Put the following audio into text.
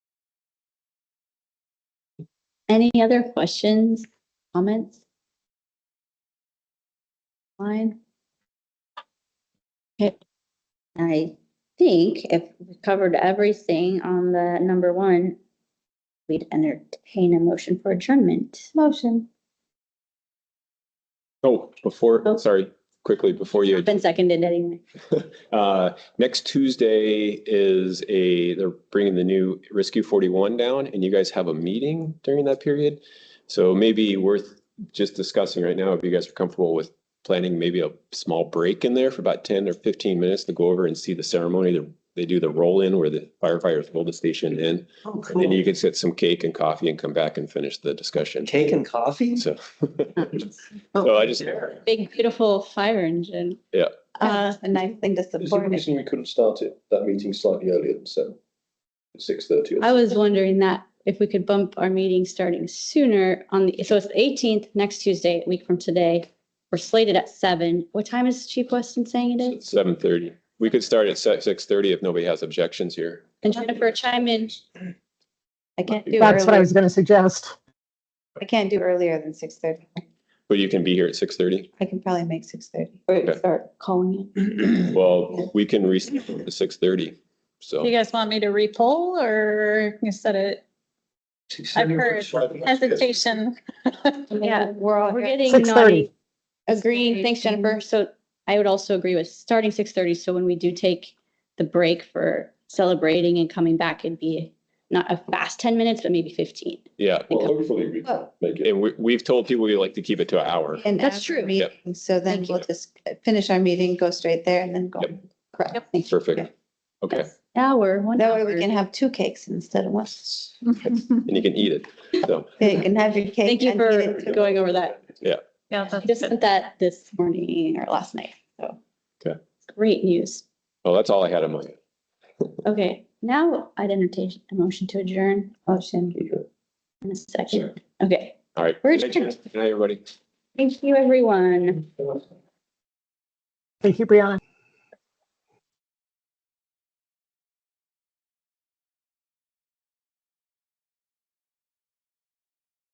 Any other questions, comments? Fine. Okay. I think if we covered everything on the number one, we'd entertain a motion for adjournment. Motion. Oh, Oh. before, sorry, quickly, before you, Been seconded anyway. uh, next Tuesday is a, they're bringing the new Rescue 41 down and you guys have a meeting during that period. So maybe worth just discussing right now, if you guys are comfortable with planning maybe a small break in there for about 10 or 15 minutes to go over and see the ceremony. They- They do the roll-in where the firefighters roll the station in. And then you can get some cake and coffee and come back and finish the discussion. Cake and coffee? So, Oh, I just- there. Big beautiful fire engine. Yeah. Uh, A nice thing to There's a support. it. reason we couldn't start it, that meeting slightly earlier than seven, six thirty. I was wondering that if we could bump our meeting starting sooner on the, so it's the eighteenth, next Tuesday, a week from today. We're slated at seven. What time is Chief Weston saying it is? Seven thirty. We could start at six thirty if nobody has objections here. And Jennifer, chime in. I can't do That's what I earlier. was going to suggest. I can't do earlier than six thirty. But you can be here at six thirty. I can probably make six thirty. Or Okay. start calling in. Well, we can re to six thirty. So Do you guys want me to repoll or you said it I've heard hesitation? Yeah, We're all We're here. getting Six naughty. thirty. Agreeing, thanks Jennifer. So I would also agree with starting six thirty. So when we do take the break for celebrating and coming back, it'd be not a fast ten minutes, but maybe fifteen. yeah, Well, hopefully we can Oh, make it. and we we've told people we like to keep it to an hour. and That's after true. meeting, So then Thank we'll just finish our meeting, go straight there and then go. Yep. Correct. Yep. Thank you. Yeah. Perfect. Okay, Hour, one That way hour. we can have two cakes instead of one. and you can eat it. So Yeah, You can have your Thank cake. you and eat for it too. going over that. Yeah, I that's just good. sent that this morning or last night, so. Okay. Great news. well, that's all I had in mind. Okay, now I'd entertain a motion to adjourn. Oh, Motion in a second. Okay, All right. We're Good night, Jen. Good night, everybody. thank you, everyone. Thank you, Brianna.